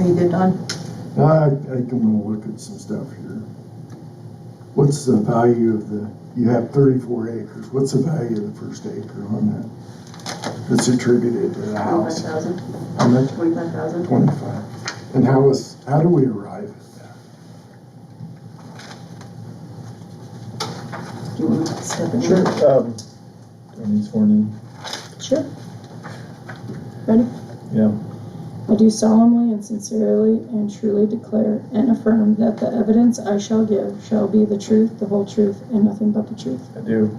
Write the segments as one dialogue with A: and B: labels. A: needed on?
B: I, I can wanna look at some stuff here. What's the value of the, you have thirty-four acres, what's the value of the first acre on that? That's attributed to the
A: Twenty-five
B: house,
A: thousand.
B: how much?
A: Twenty-five thousand.
B: Twenty-five. And how is, how do we arrive at that?
A: Do you want to step in?
C: Sure, um, do I need sworn in?
D: Sure.
C: Yeah,
D: I do solemnly and sincerely and truly declare and affirm that the evidence I shall give shall be the truth, the whole truth, and nothing but the truth.
C: I do.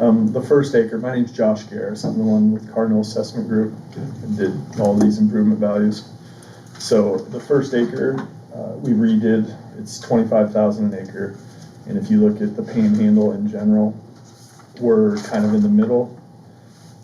C: Um, the first acre, my name's Josh Garris, I'm the one with Cardinal Assessment Group, and did all these improvement values. So the first acre, uh, we redid, it's twenty-five thousand an acre, and if you look at the panhandle in general, we're kind of in the middle.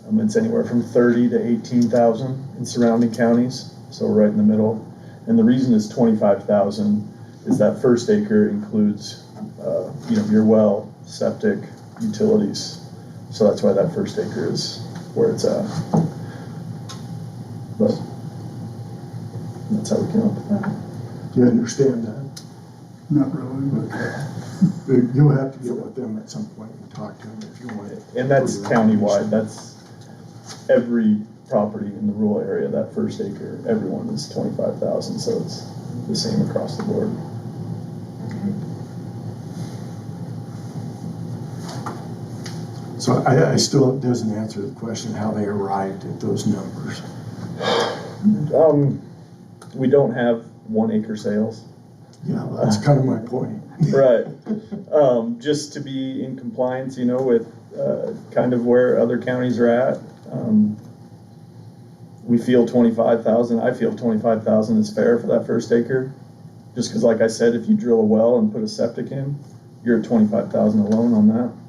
C: Um, it's anywhere from thirty to eighteen thousand in surrounding counties, so we're right in the middle. And the reason it's twenty-five thousand is that first acre includes, uh, you know, your well, septic, utilities. So that's why that first acre is where it's at. But that's how we came up with that.
B: Do you understand that?
E: Not really,
B: But You'll have to get with them at some point and talk to them if you want.
C: And that's countywide, that's every property in the rural area, that first acre, everyone is twenty-five thousand, so it's the same across the board.
B: So I, I still, it doesn't answer the question how they arrived at those numbers.
C: Um, we don't have one acre sales.
B: Yeah, that's kind of my point.
C: Right. Um, just to be in compliance, you know, with, uh, kind of where other counties are at. Um, We feel twenty-five thousand, I feel twenty-five thousand is fair for that first acre. Just cause like I said, if you drill a well and put a septic in, you're at twenty-five thousand alone on that.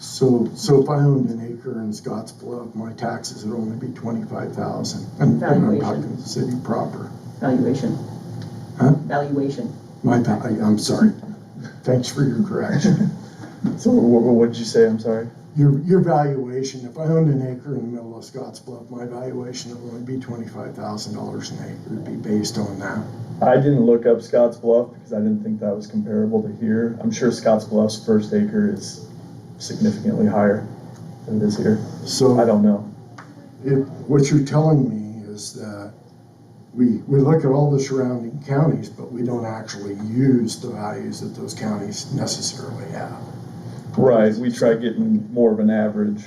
B: So, so if I owned an acre in Scotts Bluff, my taxes would only be twenty-five thousand. And and I'm
A: Valuation.
B: talking the city proper.
A: Valuation.
B: Huh?
A: Valuation.
B: My, va- I- I'm sorry. Thanks for your correction.
C: So what, what did you say? I'm sorry.
B: Your, your valuation, if I owned an acre in the middle of Scotts Bluff, my valuation would only be twenty-five thousand dollars an acre. It'd be based on that.
C: I didn't look up Scotts Bluff because I didn't think that was comparable to here. I'm sure Scotts Bluff's first acre is significantly higher than it is here.
B: So.
C: I don't know.
B: It, what you're telling me is that we, we look at all the surrounding counties, but we don't actually use the values that those counties necessarily have.
C: Right, we tried getting more of an average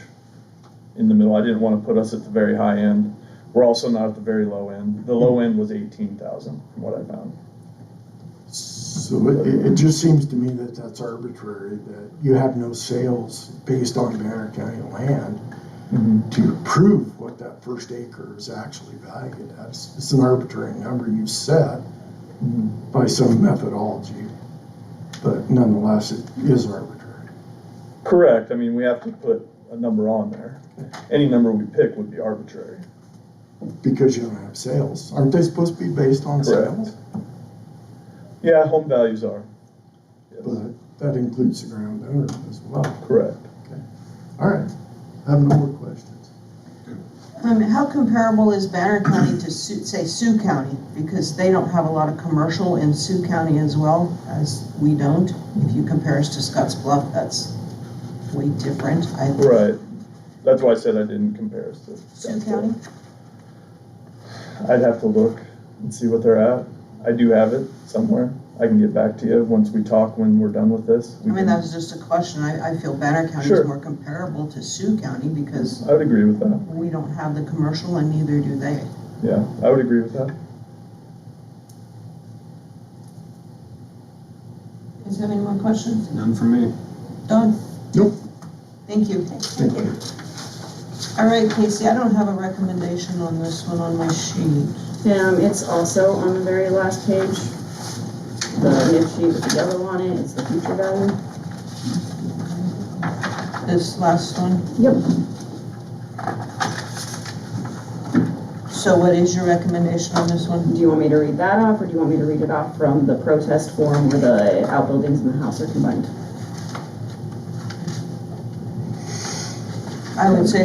C: in the middle. I didn't want to put us at the very high end. We're also not at the very low end. The low end was eighteen thousand from what I found.
B: So it, it it just seems to me that that's arbitrary, that you have no sales based on Banner County land to prove what that first acre is actually valued as. It's an arbitrary number you set by some methodology, but nonetheless, it is arbitrary.
C: Correct, I mean, we have to put a number on there. Any number we pick would be arbitrary.
B: Because you don't have sales. Aren't they supposed to be based on
C: Correct.
B: sales?
C: Yeah, home values are,
B: But that includes the ground owner as well.
C: correct.
B: All right, I have no more questions.
F: Um, how comparable is Banner County to Sioux, say Sioux County? Because they don't have a lot of commercial in Sioux County as well as we don't. If you compare us to Scotts Bluff, that's way different. I,
C: Right, that's why I said I didn't compare us to.
F: Sioux County?
C: I'd have to look and see what they're at. I do have it somewhere. I can get back to you once we talk, when we're done with this.
F: I
C: We
B: Mm-hmm.
F: mean,
C: can-
F: that was just a question. I, I feel Banner County
C: Sure.
F: is more comparable to Sioux County because
C: I would agree with that,
F: we don't have the commercial and neither do they.
C: yeah, I would agree with that.
F: Does have any more questions?
G: None for me.
F: Done?
B: Nope.
F: Thank you.
B: Thank you.
F: All right, Casey, I don't have a recommendation on this one on my sheet.
H: Um, it's also on the very last page, the nib sheet with the yellow on it, it's the future value.
F: This last one? Yep. So what is your recommendation on this one?
H: Do you want me to read that off, or do you want me to read it off from the protest form where the outbuildings and the house are combined?
F: I would say